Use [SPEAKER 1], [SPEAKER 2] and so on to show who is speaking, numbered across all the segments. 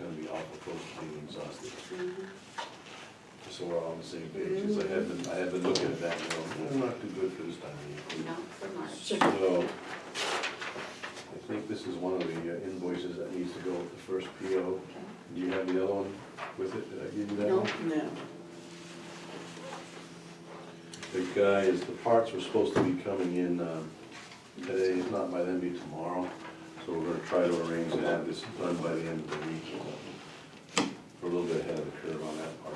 [SPEAKER 1] we're close to being exhausted.
[SPEAKER 2] Mm-hmm.
[SPEAKER 1] So we're all on the same page, 'cause I have been, I have been looking at that, and going, "Mm, not too good for this time of year.
[SPEAKER 2] Not for March.
[SPEAKER 1] So, I think this is one of the uh, invoices that needs to go with the first PO. Do you have the other one with it? Did I give you that
[SPEAKER 2] No.
[SPEAKER 1] one?
[SPEAKER 3] No.
[SPEAKER 1] The guys, the parts were supposed to be coming in um, today, if not by then, be tomorrow. So we're gonna try to arrange to have this done by the end of the week. or something. We're a little bit ahead of the curve on that part.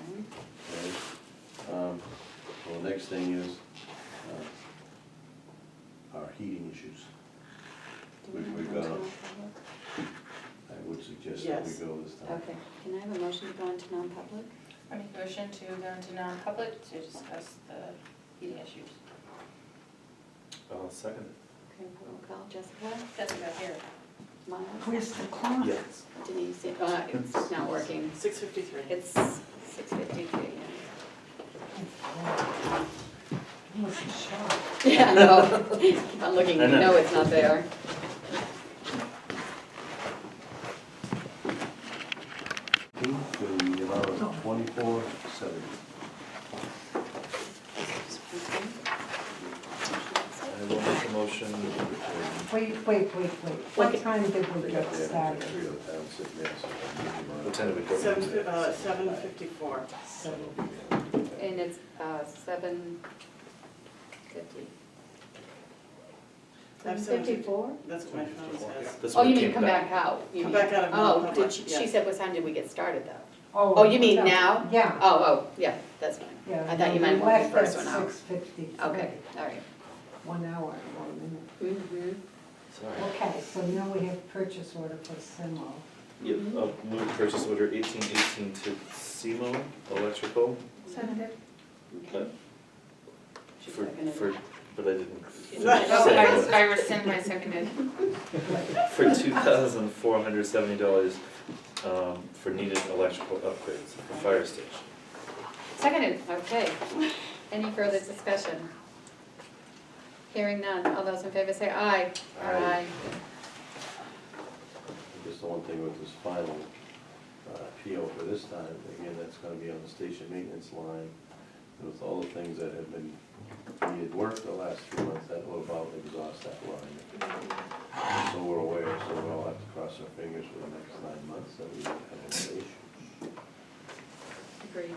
[SPEAKER 2] Okay.
[SPEAKER 1] okay? Um, Well, the next thing is uh, our heating issues.
[SPEAKER 2] Do we
[SPEAKER 1] We- we've
[SPEAKER 2] have a
[SPEAKER 1] got
[SPEAKER 2] motion?
[SPEAKER 1] I would suggest that we
[SPEAKER 3] Yes.
[SPEAKER 1] go this time.
[SPEAKER 2] Okay, can I have a motion to go into non-public?
[SPEAKER 4] I make a motion to go into non-public to discuss the heating issues.
[SPEAKER 5] I'll second
[SPEAKER 2] Okay, roll call, Jessica,
[SPEAKER 4] Jessica, here.
[SPEAKER 2] Miles,
[SPEAKER 3] Where's the clock?
[SPEAKER 5] Yes.
[SPEAKER 2] Denise, uh, it's not working.
[SPEAKER 3] Six fifty-three.
[SPEAKER 2] It's six fifty-three. Oh, Yeah, I know. Keep on looking, you
[SPEAKER 5] I know.
[SPEAKER 2] know it's not there.
[SPEAKER 1] Eighteenth, the amount of twenty-four seventy.
[SPEAKER 2] Okay.
[SPEAKER 5] I will make a motion.
[SPEAKER 6] Wait, wait, wait, wait.
[SPEAKER 2] Okay.
[SPEAKER 6] What time did
[SPEAKER 1] They
[SPEAKER 6] we
[SPEAKER 1] got
[SPEAKER 6] get
[SPEAKER 1] the, I
[SPEAKER 6] started?
[SPEAKER 1] got three other towns sitting there, so I'm giving
[SPEAKER 5] What time did we go?
[SPEAKER 3] Seven, fi- uh, seven fifty-four.
[SPEAKER 1] my.
[SPEAKER 2] And it's, uh, seven fifty.
[SPEAKER 3] I've
[SPEAKER 2] Seven
[SPEAKER 3] sent it.
[SPEAKER 2] fifty-four?
[SPEAKER 3] That's what my phone
[SPEAKER 1] uh,
[SPEAKER 3] says.
[SPEAKER 5] That's
[SPEAKER 2] Oh,
[SPEAKER 5] what
[SPEAKER 2] you mean
[SPEAKER 5] came
[SPEAKER 2] come back out? you
[SPEAKER 3] Come
[SPEAKER 2] mean.
[SPEAKER 3] back out of
[SPEAKER 2] Oh,
[SPEAKER 3] non-public,
[SPEAKER 2] did she, she
[SPEAKER 3] yeah.
[SPEAKER 2] said what time did we get started though? Oh, you mean
[SPEAKER 6] no.
[SPEAKER 2] now?
[SPEAKER 6] Yeah.
[SPEAKER 2] Oh, oh, yeah, that's fine.
[SPEAKER 6] Yeah,
[SPEAKER 2] I thought you
[SPEAKER 6] we
[SPEAKER 2] meant when we
[SPEAKER 6] left
[SPEAKER 2] first
[SPEAKER 6] at
[SPEAKER 2] went out.
[SPEAKER 6] 6:53.
[SPEAKER 2] Okay, all right.
[SPEAKER 6] One hour, one minute.
[SPEAKER 2] Mm-hmm.
[SPEAKER 5] Sorry.
[SPEAKER 6] Okay, so now we have purchase order for Simo.
[SPEAKER 5] Yep, I'll uh, move purchase order eighteen eighteen to Simo Electrical
[SPEAKER 4] Seconded.
[SPEAKER 5] uh,
[SPEAKER 2] She
[SPEAKER 5] for,
[SPEAKER 2] seconded.
[SPEAKER 5] for, but I didn't
[SPEAKER 3] Right.
[SPEAKER 5] finish
[SPEAKER 4] Oh, I
[SPEAKER 5] saying
[SPEAKER 4] I rescind my seconded.
[SPEAKER 5] it. For two thousand four hundred seventy dollars, um, for needed electrical upgrades for fire station.
[SPEAKER 2] Seconded, okay. Any further discussion? Hearing none, all those in favor say aye.
[SPEAKER 5] Aye.
[SPEAKER 1] Just the one thing with this final uh, appeal for this time, again, that's gonna be on the station maintenance line. And With all the things that have been needed work the last few months, that will about exhaust that line. So we're aware, so we'll have to cross our fingers for the next nine months that we don't have any issue.
[SPEAKER 2] Agreed.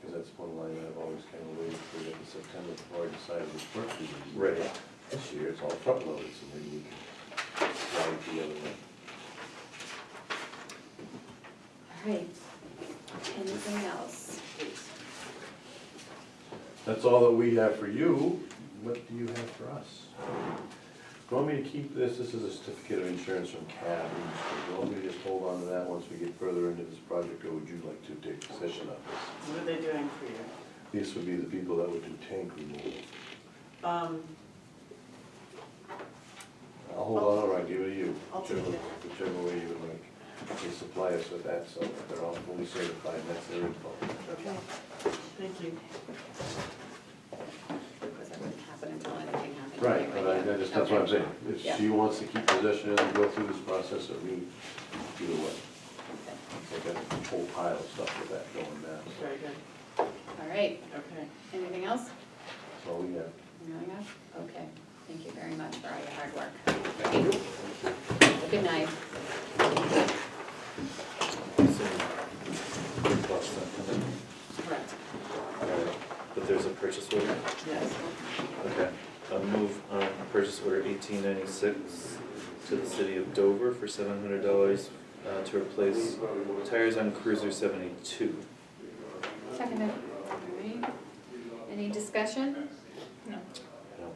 [SPEAKER 1] Because that's one line I've always kind of waited for, that in September, before I decided which work to do.
[SPEAKER 5] Right.
[SPEAKER 1] This year, it's all front loaded, so maybe we can slide it the other way.
[SPEAKER 2] All right. Anything else?
[SPEAKER 1] That's all that we have for you. What do you have for us? Do you want me to keep this? This is a certificate of insurance from CAB. Do you want me to just hold on to that once we get further into this project, or would you like to take possession of this?
[SPEAKER 3] What are they doing for you?
[SPEAKER 1] These would be the people that would do tank removal.
[SPEAKER 3] Um,
[SPEAKER 1] I'll hold on, or I'll give it to you.
[SPEAKER 3] I'll take
[SPEAKER 1] whichever-
[SPEAKER 3] it.
[SPEAKER 1] Whichever way you would like. They supply us with that, so they're all fully certified, and that's their info.
[SPEAKER 3] okay, thank you.
[SPEAKER 2] Because that wouldn't happen until anything happened.
[SPEAKER 1] Right, but I- I just, that's what I'm saying.
[SPEAKER 2] Yeah.
[SPEAKER 1] If she wants to keep possession and go through this process, or me, either way. I got a whole pile of stuff with that going now, so
[SPEAKER 3] Very good,
[SPEAKER 2] All right,
[SPEAKER 3] okay.
[SPEAKER 2] anything else?
[SPEAKER 1] that's all we have.
[SPEAKER 2] Anything else? Okay, thank you very much for all your hard work. Well, Good night.
[SPEAKER 3] Correct,
[SPEAKER 5] But there's a purchase order?
[SPEAKER 3] yes.
[SPEAKER 5] Okay, I'll move on purchase order eighteen ninety-six to the city of Dover for seven hundred dollars uh, to replace tires on Cruiser seventy-two.
[SPEAKER 2] Seconded. All right. Any discussion?
[SPEAKER 4] No.
[SPEAKER 5] No.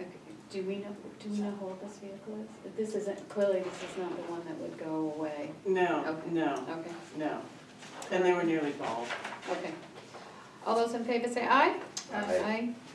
[SPEAKER 2] Okay, Do we know, do we know how old this vehicle is? This isn't, clearly this is not the one that would go away.
[SPEAKER 3] No,
[SPEAKER 2] Okay.
[SPEAKER 3] no,
[SPEAKER 2] Okay,
[SPEAKER 3] no. And they were nearly bald.
[SPEAKER 2] okay. All those in favor say aye?
[SPEAKER 4] Aye.
[SPEAKER 2] Aye,